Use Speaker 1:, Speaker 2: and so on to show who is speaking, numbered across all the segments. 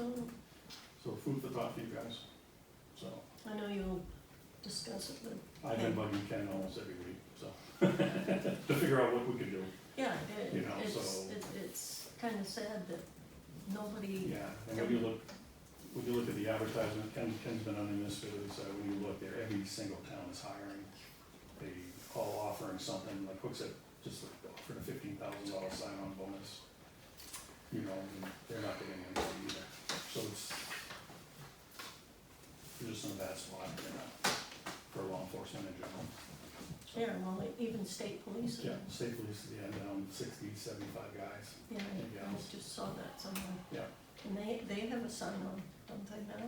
Speaker 1: Oh,
Speaker 2: So food for thought for you guys. So
Speaker 1: I know you'll discuss it, but,
Speaker 2: I've been bugging Ken almost every week, so, to figure out what we can do,
Speaker 1: yeah,
Speaker 2: You
Speaker 1: it,
Speaker 2: know,
Speaker 1: it's,
Speaker 2: so-
Speaker 1: it- it's kinda sad that nobody,
Speaker 2: yeah. And when you look, when you look at the advertisement, Ken, Ken's been on the administrative side, when you look there, every single town is hiring. They all offering something, like Hook said, just offered a fifteen thousand dollar sign-on bonus. You know, and they're not getting anybody either, so it's, you're just in a bad spot, you know, for law enforcement in general. So-
Speaker 1: yeah, well, e, even state police.
Speaker 2: Yeah, state police, yeah, down um, sixty, seventy-five guys.
Speaker 1: Yeah, I- I
Speaker 2: Yeah.
Speaker 1: just saw that somewhere.
Speaker 2: Yeah.
Speaker 1: And they, they have a sign on, don't they now?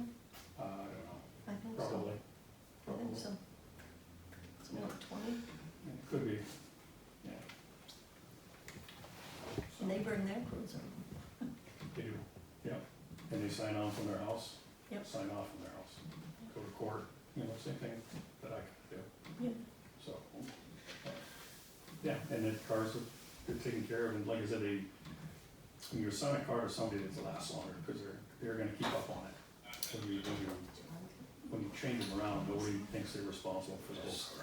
Speaker 2: Uh, I don't
Speaker 1: I think
Speaker 2: know,
Speaker 1: so,
Speaker 2: probably.
Speaker 1: I
Speaker 2: Probably.
Speaker 1: think so. It's about twenty,
Speaker 2: Yeah, it Could be, yeah. So,
Speaker 1: and they bring their crews over.
Speaker 2: They do, yeah. And they sign off from their house.
Speaker 1: Yep.
Speaker 2: Sign off from their house. Go to court, you know, same thing that I could do.
Speaker 1: Yeah.
Speaker 2: So, uh, yeah, and then cars are, they're taken care of, and like I said, they, when you assign a car to somebody that's lasts longer, because they're, they're gonna keep up on it. When you, when you when you change them around, nobody thinks they're responsible for those.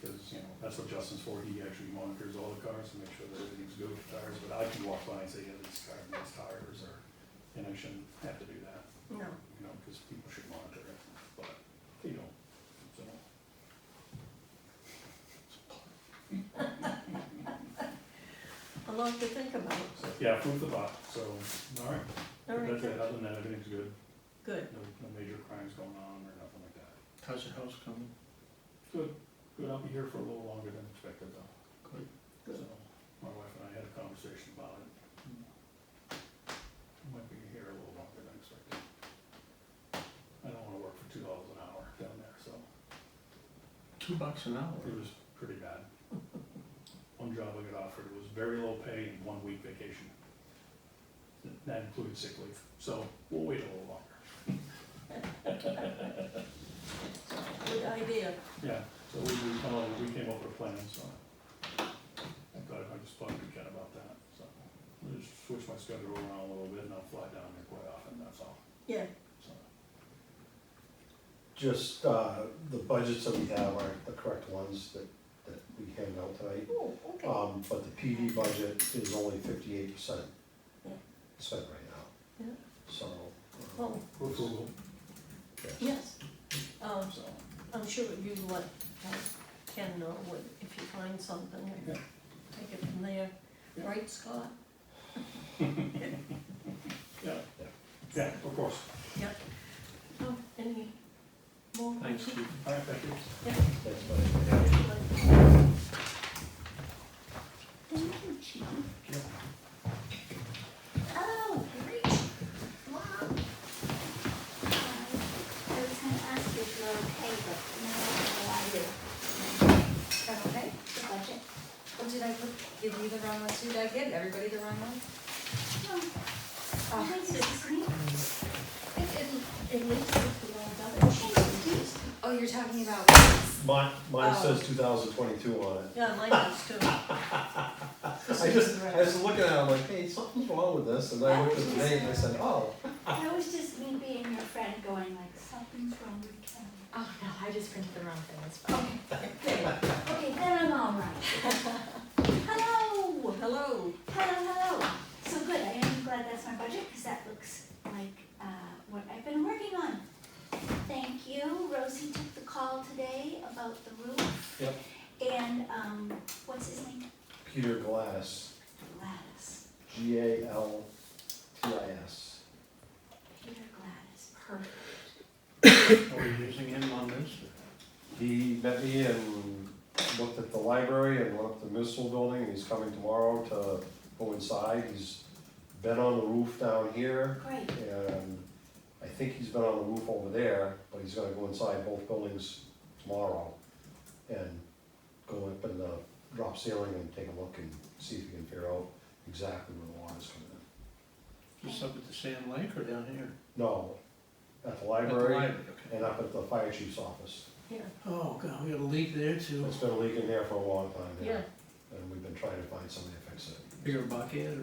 Speaker 2: Because, you know, that's what Justin's for, he actually monitors all the cars to make sure that everything's good with tires, but I can walk by and say, yeah, this car needs tires, or, and I shouldn't have to do that,
Speaker 1: No,
Speaker 2: you know, because people should monitor it, but, you know, so.
Speaker 1: a lot to think about.
Speaker 2: So, yeah, food for thought, so, all right,
Speaker 1: All right,
Speaker 2: that's it,
Speaker 1: good.
Speaker 2: other than that, everything's good,
Speaker 1: good,
Speaker 2: no, no major crimes going on or nothing like that.
Speaker 3: How's your house coming?
Speaker 2: Good, good, I'll be here for a little longer than expected though.
Speaker 3: Good.
Speaker 2: So,
Speaker 1: Good.
Speaker 2: my wife and I had a conversation about it. I Might be here a little longer than expected. I don't wanna work for two dollars an hour down there, so
Speaker 3: Two bucks an hour.
Speaker 2: it was pretty bad. One job I got offered was very low pay and one week vacation. That included sick leave, so we'll wait a little longer.
Speaker 1: good idea.
Speaker 2: Yeah, so we, we, come up- we came up with a plan, so. I thought I just talked to Ken about that, so. I'll just switch my schedule around a little bit and I'll fly down there quite often, that's all,
Speaker 1: Yeah,
Speaker 2: so.
Speaker 4: Just, uh, the budgets that we have aren't the correct ones that, that we handed out tonight.
Speaker 1: oh, okay,
Speaker 4: Um, but the PD budget is only fifty-eight percent
Speaker 1: Yeah.
Speaker 4: spent right now.
Speaker 1: Yeah. Oh.
Speaker 4: So. uh,
Speaker 1: well,
Speaker 2: We're frugal,
Speaker 4: yeah.
Speaker 1: yes. Um,
Speaker 2: so,
Speaker 1: I'm sure you let uh, Ken know what, if you find something, and
Speaker 2: Yeah.
Speaker 1: take it from there.
Speaker 2: Yeah.
Speaker 1: Right, Scott?
Speaker 2: yeah, yeah, of course.
Speaker 1: Yep. Oh, any more?
Speaker 3: Thanks, Chief.
Speaker 2: All right, thank you.
Speaker 4: That's fine.
Speaker 1: Thank
Speaker 5: Oh,
Speaker 1: you, Chief.
Speaker 2: Yeah.
Speaker 6: Oh, great. Wow. I was gonna ask you if you're okay, but now I know I do.
Speaker 5: Is that okay?
Speaker 6: The budget.
Speaker 5: Or did I put- give you the wrong ones? Did I give everybody the wrong ones?
Speaker 6: Oh, thanks, it's great.
Speaker 5: It didn't.
Speaker 6: It looks like we all got it. Thanks, Steve.
Speaker 5: Oh, you're talking about ones.
Speaker 4: Mine, mine
Speaker 5: Oh.
Speaker 4: says two thousand twenty-two on it.
Speaker 1: Yeah, mine does too. This
Speaker 4: I
Speaker 1: is
Speaker 4: just,
Speaker 1: correct.
Speaker 4: I was looking at it, I'm like, hey, something's wrong with this, and I looked at the name, and I said, oh,
Speaker 6: That was just me being your friend going like, something's wrong with Ken.
Speaker 5: Oh, no, I just printed the wrong thing. It's fine.
Speaker 6: Okay, okay, then I'm all right.
Speaker 1: Hello, hello.
Speaker 6: Hello, hello. So good, I am glad that's my budget, because that looks like, uh, what I've been working on. Thank you, Rosie took the call today about the roof.
Speaker 4: Yep.
Speaker 6: And, um, what's his name?
Speaker 4: Peter Glass,
Speaker 6: Gladys,
Speaker 4: G A L T I S.
Speaker 6: Peter Gladys, perfect.
Speaker 3: Are we using him on this?
Speaker 4: He met me and looked at the library and went up to the municipal building, and he's coming tomorrow to go inside. He's been on the roof down here,
Speaker 6: Great,
Speaker 4: and I think he's been on the roof over there, but he's gonna go inside both buildings tomorrow and go up in the drop ceiling and take a look and see if he can figure out exactly where the water's coming in.
Speaker 3: Just up at the Sand Lake or down here?
Speaker 4: No, at the
Speaker 3: At the
Speaker 4: library
Speaker 3: okay.
Speaker 4: and up at the fire chief's office.
Speaker 1: Yeah,
Speaker 3: Oh, God, we got a leak there too.
Speaker 4: It's been leaking there for a long time now.
Speaker 1: yeah.
Speaker 4: and we've been trying to find somebody to fix it.
Speaker 3: Bigger bucket